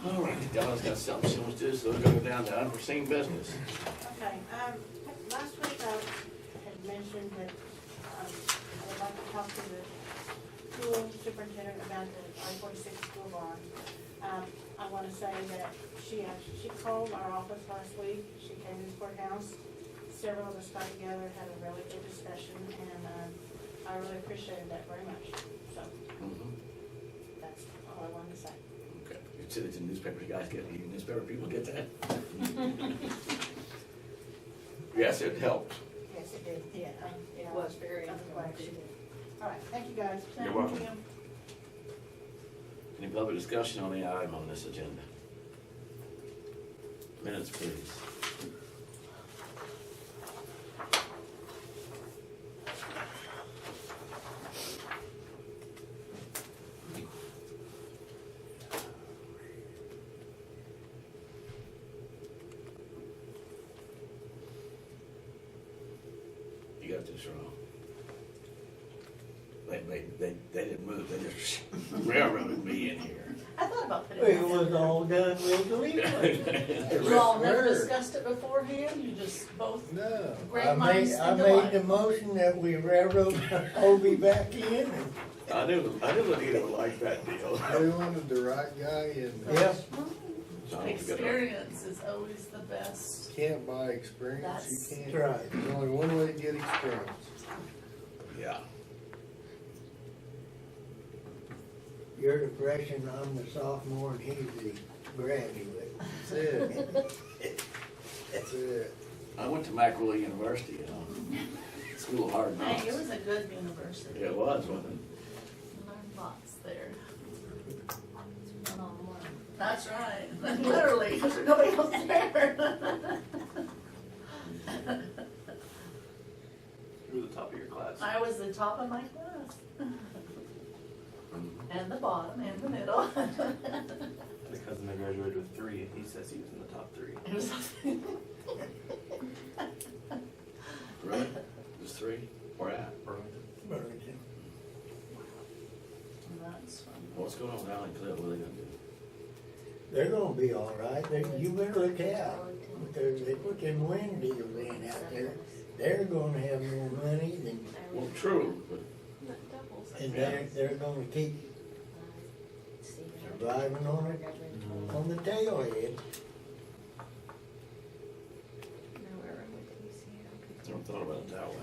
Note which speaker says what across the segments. Speaker 1: Donna's got something she wants to do, so we're gonna go down to unforeseen business.
Speaker 2: Okay, um, last week I had mentioned that, um, I would like to talk to the school superintendent about the I forty-six school bond. Um, I wanna say that she actually, she called our office last week, she came to the courthouse, several of us got together, had a really good discussion, and, um, I really appreciated that very much, so,
Speaker 1: Mhm.
Speaker 2: that's all I wanted to say.
Speaker 1: Okay. You said it's in newspapers, you guys get, even newspaper people get that? Yes, it helped.
Speaker 2: Yes, it did, yeah, um, yeah.
Speaker 3: It was very
Speaker 2: I'm glad she
Speaker 3: informative.
Speaker 2: did. All right, thank you guys.
Speaker 1: You're welcome. Any public discussion on the item on this agenda? Minutes, please. You got this wrong. They, they, they, they didn't move, they just railroaded me in here.
Speaker 2: I thought about putting.
Speaker 4: It was all done legally.
Speaker 3: You all never
Speaker 4: Sure.
Speaker 3: discussed it beforehand, you just both,
Speaker 4: No.
Speaker 3: Great
Speaker 4: I made,
Speaker 3: minds
Speaker 4: I
Speaker 3: think alike.
Speaker 4: made the motion that we railroad Hobie back in.
Speaker 1: I knew, I knew Anita would like that deal.
Speaker 5: We wanted the right guy in.
Speaker 4: Yep,
Speaker 3: experience is always the best.
Speaker 5: Can't buy experience,
Speaker 3: That's
Speaker 5: you
Speaker 4: that's
Speaker 5: can't.
Speaker 4: right.
Speaker 5: There's only one way to get experience.
Speaker 1: Yeah.
Speaker 4: You're the freshman, I'm the sophomore, and he's the graduate.
Speaker 5: That's it. That's it.
Speaker 1: I went to Macquarie University, you know, school of hard knocks.
Speaker 3: Hey, it was a good university.
Speaker 1: It was, wasn't
Speaker 3: Learned lots there. That's right, literally, 'cause there's nobody else there.
Speaker 1: it? You were the top of your class.
Speaker 3: I was the top of my class,
Speaker 1: Mhm.
Speaker 3: and the bottom, and the middle.
Speaker 6: The cousin I graduated with three, and he says he was in the top three.
Speaker 3: It was,
Speaker 1: Really? There's three? Where at?
Speaker 6: Burlington.
Speaker 4: Burlington.
Speaker 3: that's fun.
Speaker 1: What's going on with Allen Cliff? What are they gonna do?
Speaker 4: They're gonna be all right. They, you better look out. Because they put them wind deals in out there. They're gonna have more money than,
Speaker 1: Well, true, but
Speaker 4: and they're, they're gonna keep surviving on it, on the tail end.
Speaker 1: I never thought about it that way.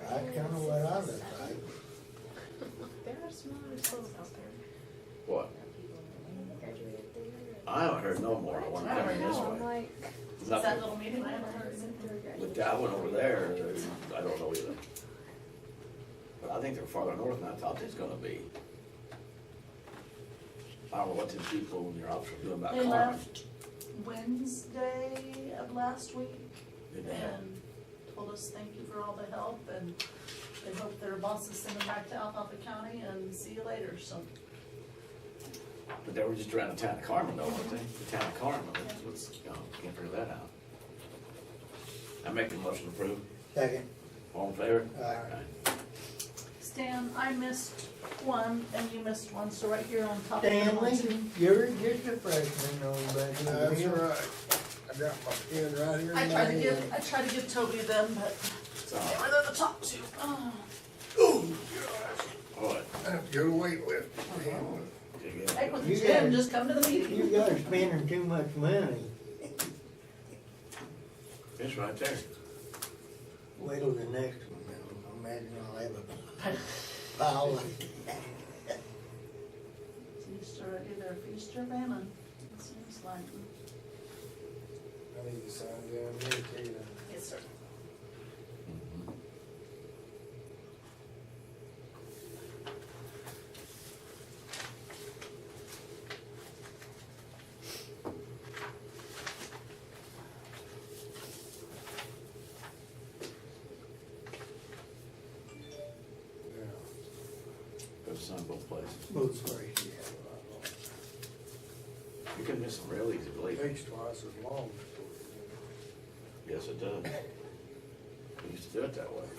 Speaker 4: That's kinda what I look like.
Speaker 7: There are some other schools out there.
Speaker 1: What? I haven't heard no more. I want to come in this way.
Speaker 3: Is that
Speaker 1: Nothing.
Speaker 3: little meeting I haven't heard since?
Speaker 1: But I went over there, I don't know either. But I think they're farther north than I thought they was gonna be. I don't know what these people in your office are doing about
Speaker 3: They
Speaker 1: Carmen.
Speaker 3: left Wednesday of last week
Speaker 1: Did they have-
Speaker 3: and told us thank you for all the help and they hope their bosses send them back to Alphaba County and see you later, so.
Speaker 1: But they were just around the town of Carmen though, weren't they? The town of Carmen, that's what's, oh, can't figure that out. I make the motion to approve.
Speaker 4: Second,
Speaker 1: All in favor?
Speaker 4: uh,
Speaker 3: Stan, I missed one and you missed one, so right here on top of the
Speaker 4: Stanley,
Speaker 3: one, two.
Speaker 4: you're just a freshman on budget
Speaker 5: That's
Speaker 4: deal.
Speaker 5: right. I got my pen right here. in
Speaker 3: I
Speaker 5: my
Speaker 3: tried to
Speaker 5: hand.
Speaker 3: give, I tried to give Toby them, but
Speaker 1: It's
Speaker 3: they
Speaker 1: all
Speaker 3: were the top two. Oh,
Speaker 1: right.
Speaker 5: You're the
Speaker 3: Uh-huh.
Speaker 5: weightlifter.
Speaker 1: Dig in.
Speaker 3: Heck with the
Speaker 4: You
Speaker 3: gym,
Speaker 4: guys-
Speaker 3: just come to the
Speaker 4: You
Speaker 3: meeting.
Speaker 4: guys are spending too much money.
Speaker 1: It's right there.
Speaker 4: Wait till the next one, I'll imagine I'll have a pile of.
Speaker 3: Seems to already there, feast or famine, it seems like.
Speaker 5: I need to sign down here too.
Speaker 3: Yes, sir.
Speaker 5: Yeah.
Speaker 1: Go sign both places.
Speaker 4: Both places.
Speaker 1: You can miss them real easy, believe me.
Speaker 5: Takes twice as long. before you get it.
Speaker 1: Yes, it does. We used to do it that way.